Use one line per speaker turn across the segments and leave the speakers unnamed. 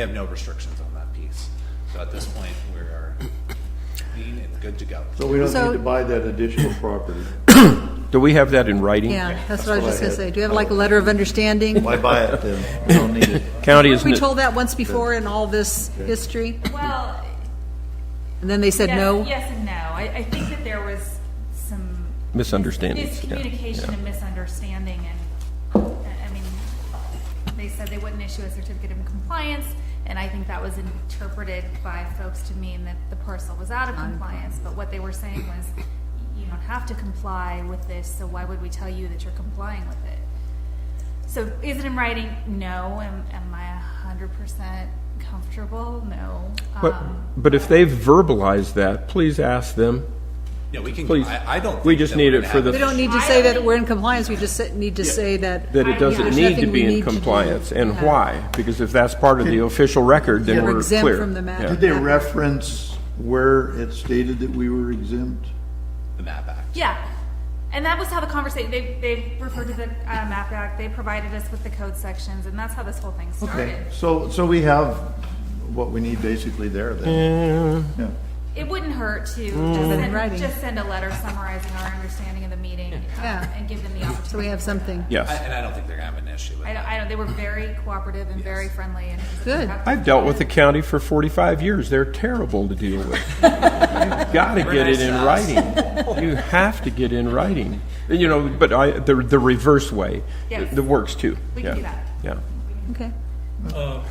They have no restrictions on that piece. So at this point, we are clean and good to go.
So we don't
So-
need to buy that additional property.
Do we have that in writing?
Yeah, that's what I was
what I
just going to
had.
say. Do you have like a letter of understanding?
Why buy it then? We don't need it.
County
Weren't
isn't
we
it?
told that once before in all this history?
Well,
And then they said
yes,
no?
yes and no. I, I think that there was some
Misunderstandings, yeah,
miscommunication
yeah.
and misunderstanding, and I I mean, they said they wouldn't issue a certificate of compliance, and I think that was interpreted by folks to mean that the parcel was out of compliance. But what they were saying was, you don't have to comply with this, so why would we tell you that you're complying with it? So is it in writing? No. Am, am I hundred percent comfortable? No.
But,
Um,
but if they've verbalized that, please ask them.
Yeah, we can,
Please.
I, I don't.
We
think
just
that we're
need it
gonna
for the-
We
have-
don't need to
I
say
don't
that we're in compliance, we just sa- need to say that.
that it doesn't
there's
need to
nothing we
be in
need do.
compliance, and why? Because if that's part of the official record, then
You're
we're
exempt
clear.
from the map.
Yeah.
Did they reference where it stated that we were exempt?
The map act.
Yeah. And that was how the conversation, they, they referred to the uh, map act, they provided us with the code sections, and that's how this whole thing started.
Okay, so, so we have what we need basically there then. Yeah.
It wouldn't hurt to just
in
send,
Mm. writing.
just send a letter summarizing our understanding of the meeting um,
Yeah.
and give them the opportunity.
So we have something.
I-
Yes.
And I don't think they're gonna have an issue with
I don't,
that.
I don't, they were very cooperative and very friendly and.
Good.
I've dealt with the county for 45 years. They're terrible to deal with. You've got to get it in writing. You have to get in writing. You know, but I, the, the reverse way,
Yes.
the works too.
We can
Yeah.
do that.
Yeah.
Okay.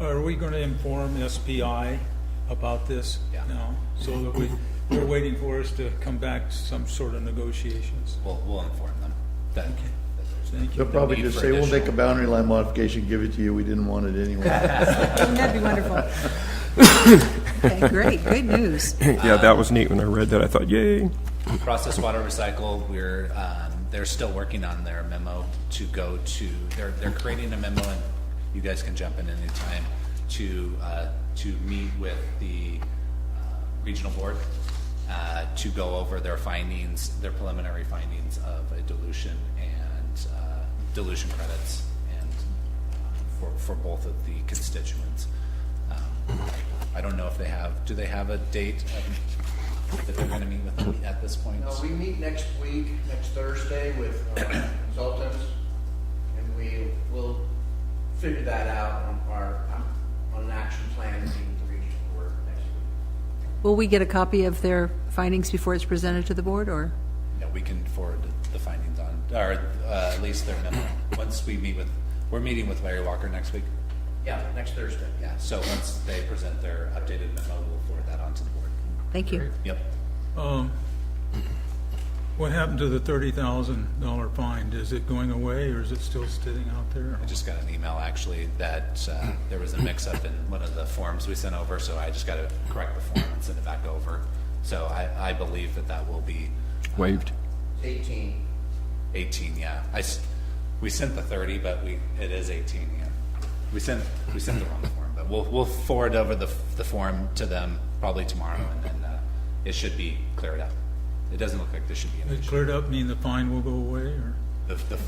Are we going to inform SPI about this
Yeah.
now? So that we, they're waiting for us to come back to some sort of negotiations.
We'll, we'll inform them that.
Thank you.
They'll probably
need
just
for
say, we'll
additional-
make a boundary line modification, give it to you, we didn't want it anyway.
That'd be wonderful. Okay, great, great news.
Yeah, that was neat when I read that. I thought, yay.
Process Water Recycle, we're, um, they're still working on their memo to go to, they're, they're creating a memo, and you guys can jump in anytime, to, uh, to meet with the uh, regional board, uh, to go over their findings, their preliminary findings of a dilution and uh, dilution credits, and uh, for, for both of the constituents. Um, I don't know if they have, do they have a date um, that they're gonna meet with them at this point?
No, we meet next week, next Thursday with uh, consultants, and we will figure that out on our, on an action plan, meeting the regional board next week.
Will we get a copy of their findings before it's presented to the board, or?
Yeah, we can forward the findings on, or uh, at least their memo. Once we meet with, we're meeting with Larry Walker next week.
Yeah, next Thursday.
Yeah, so once they present their updated memo, we'll forward that on to the board.
Thank you.
Yep.
Um, What happened to the $30,000 fine? Is it going away or is it still sitting out there?
I just got an email actually that uh, there was a mix-up in one of the forms we sent over, so I just got to correct the form and send it back over. So I, I believe that that will be
Waved.
It's eighteen.
18, yeah. I, s- we sent the 30, but we, it is 18, yeah. We sent, we sent the wrong form, but we'll, we'll forward over the, the form to them probably tomorrow, and then uh, it should be cleared up. It doesn't look like there should be an
It
issue.
cleared up, mean the fine will go away or?
The- the-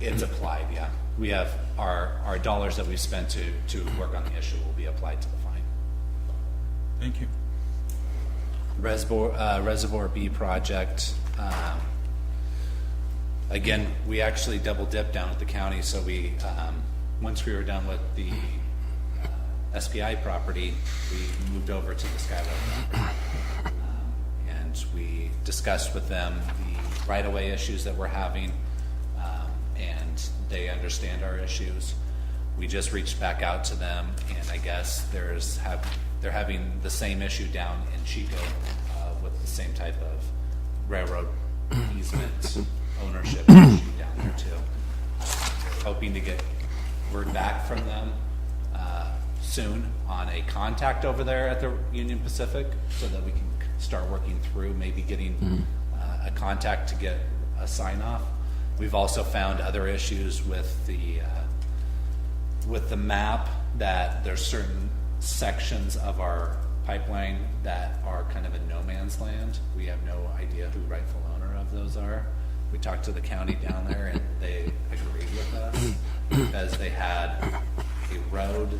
It's applied, yeah. We have, our, our dollars that we've spent to, to work on the issue will be applied to the fine.
Thank you.
Reservoir, uh, Reservoir B project, um, again, we actually double dipped down at the county, so we, um, once we were done with the uh, SPI property, we moved over to the Skyway property. Um, And we discussed with them the right-of-way issues that we're having, um, and they understand our issues. We just reached back out to them, and I guess there's, have, they're having the same issue down in Chico uh, with the same type of railroad easement ownership issue down there too. Hoping to get word back from them uh, soon on a contact over there at the Union Pacific so that we can start working through maybe getting uh, a contact to get a sign off. We've also found other issues with the uh, with the map that there's certain sections of our pipeline that are kind of in no man's land. We have no idea who rightful owner of those are. We talked to the county down there and they agreed with us because they had a road